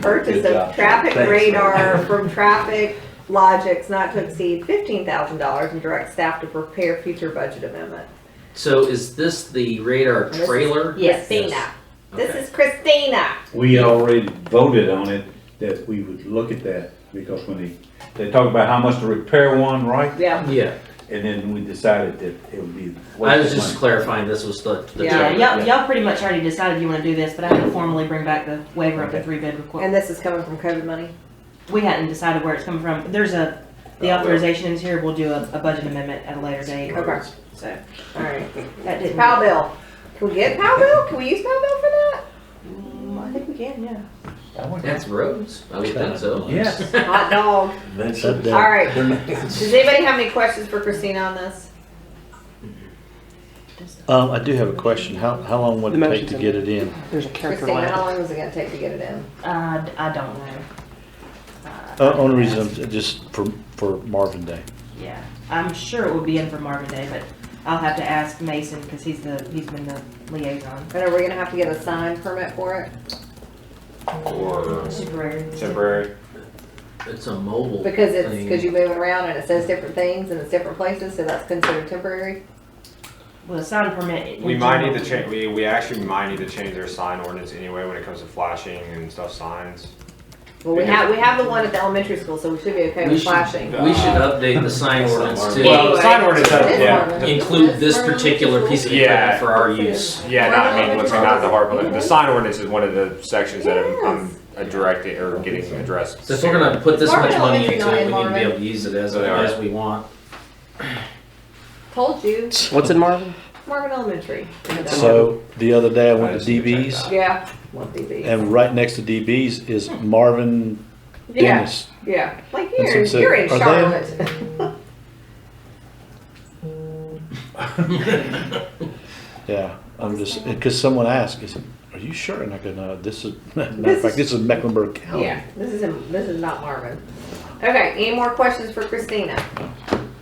purchase Good of job. traffic Thanks. radar from Traffic Logics not to exceed fifteen thousand dollars and direct staff to prepare future budget amendment. So is this the radar This is- trailer? Yes, Christina. Yes. This Okay. is Christina. We already voted on it, that we would look at that, because when they, they talk about how much to repair one, right? Yeah. Yeah, And then we decided that it would be. I was just clarifying, this was the, the Yeah, trailer. Yeah, y'all, y'all pretty much already decided you wanna do this, but I had to formally bring back the waiver of the three bid requirement. And this is coming from COVID money. We hadn't decided where it's coming from. There's a, the Oh, well. authorization is here, we'll do a, a budget amendment at a later date, Okay. so. All right. That didn't. Pow bill. Can we get pow bill? Can we use pow bill for that? Mm, I think we can, yeah. That's roads, I would think so. Yes. Hot dog. Eventually. All right. Does anybody have any questions for Christina on this? Um, I do have a question. How, how long would The it take motion's to in. get it in? Uh, There's a character Christina, how left. long is it gonna take to get it in? Uh, d- I don't know. Uh, Uh, only reason, I'm- just for, for Marvin Day. Yeah, I'm sure it will be in for Marvin Day, but I'll have to ask Mason, cause he's the, he's been the liaison. And are we gonna have to get a sign permit for it? Or Temporary. temporary. It's a mobile thing. Because it's, because you're moving around and it says different things and it's different places, so that's considered temporary? Well, a sign permit. in We might general- need to change, we, we actually might need to change our sign ordinance anyway when it comes to flashing and stuff signs. Well, we have, we have the one at the elementary school, so we should be okay We with should- flashing. We should update the sign ordinance Well, to the sign ordinance has- This yeah. one. include this particular piece of Yeah. equipment for our use. Yeah, Why not, I not? mean, let's say not the hard, but the sign ordinance is one of the sections that I'm, I'm Yes. uh, directed or getting addressed. So if we're gonna put this Marvin much money Elementary into not it, in we need to be Marvin. able to use it as, They are. as we want. Told you, What's in Marvin? Marvin Elementary. So the other day I went to DB's Yeah. One DB. and right next to DB's is Marvin Yeah, Dennis. yeah, like And you're, so- you're in are they- Charlotte. Yeah, I'm just, because someone asked, is, are you sure? And I go, no, this is, matter This of fact, is- this is Mecklenburg County. Yeah, Oh, this is, in- this is not Marvin. Okay, any more questions for Christina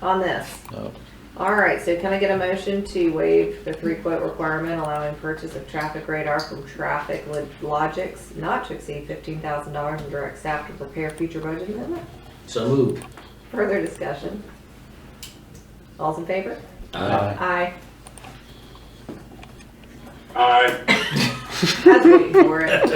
on this? No. All right, so can I get a motion to waive the three quote requirement allowing purchase of traffic radar from Traffic Lo- Logics not to exceed fifteen thousand dollars and direct staff to prepare future budget amendment? So moved. Further discussion? All's in favor? Uh, Aye. Aye. I was waiting for it.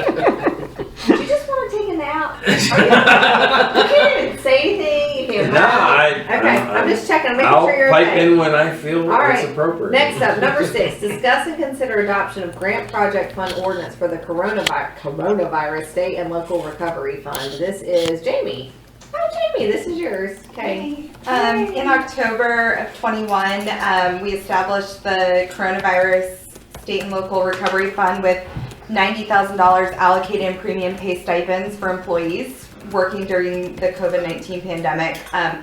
Did you just wanna take a nap? Are You you can't even say anything, you can't. No, I- Okay, I'm just checking, making I'll sure you're pipe okay. in when I feel All right. it's appropriate. Next up, number six, discuss and consider adoption of grant project fund ordinance for the coronavirus, coronavirus state and local recovery fund. This is Jamie. Oh, Jamie, this is yours. Okay. Um, in October of twenty-one, um, we established the coronavirus state and local recovery fund with ninety thousand dollars allocated in premium pay stipends for employees working during the COVID-nineteen pandemic. Um,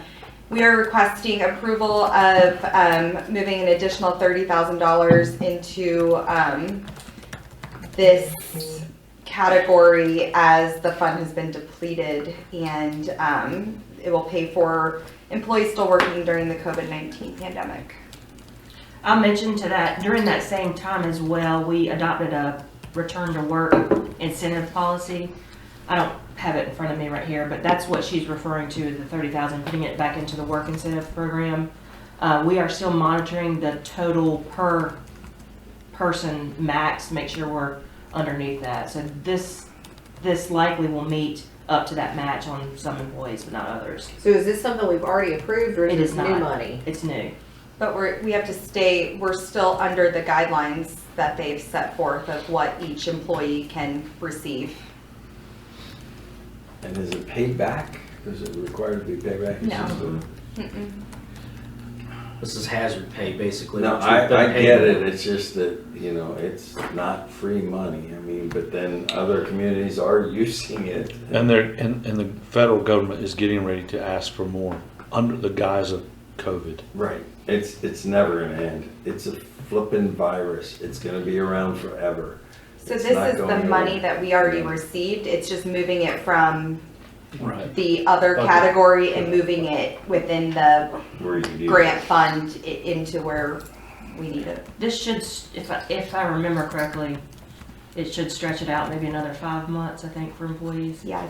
we are requesting approval of, um, moving an additional thirty thousand dollars into, um, this category as the fund has been depleted and, um, it will pay for employees still working during the COVID-19 pandemic. I'll mention to that, during that same time as well, we adopted a return to work incentive policy. I don't have it in front of me right here, but that's what she's referring to, the thirty thousand, putting it back into the work incentive program. Uh, we are still monitoring the total per person max, make sure we're underneath that. So this, this likely will meet up to that match on some employees, but not others. So is this something we've already approved or is It this is new not. money? It's new. But we're, we have to stay, we're still under the guidelines that they've set forth of what each employee can receive. And is it paid back? Is it required to be paid back? It's No. just a- this is hazard pay, basically. No, which we've I, been I paying. get it. It's just that, you know, it's not free money. I mean, but then other communities are using it. And they're, and, and the federal government is getting ready to ask for more under the guise of COVID. Right. It's, it's never gonna end. It's a flippin' virus. It's gonna be around forever. So It's this not is the going money away. that we already received, it's just moving it from Right. the other Okay. category and moving it within the Where you do. grant fund i- into where we need it. This should, s- if I, if I remember correctly, it should stretch it out maybe another five months, I think, for employees. Yeah,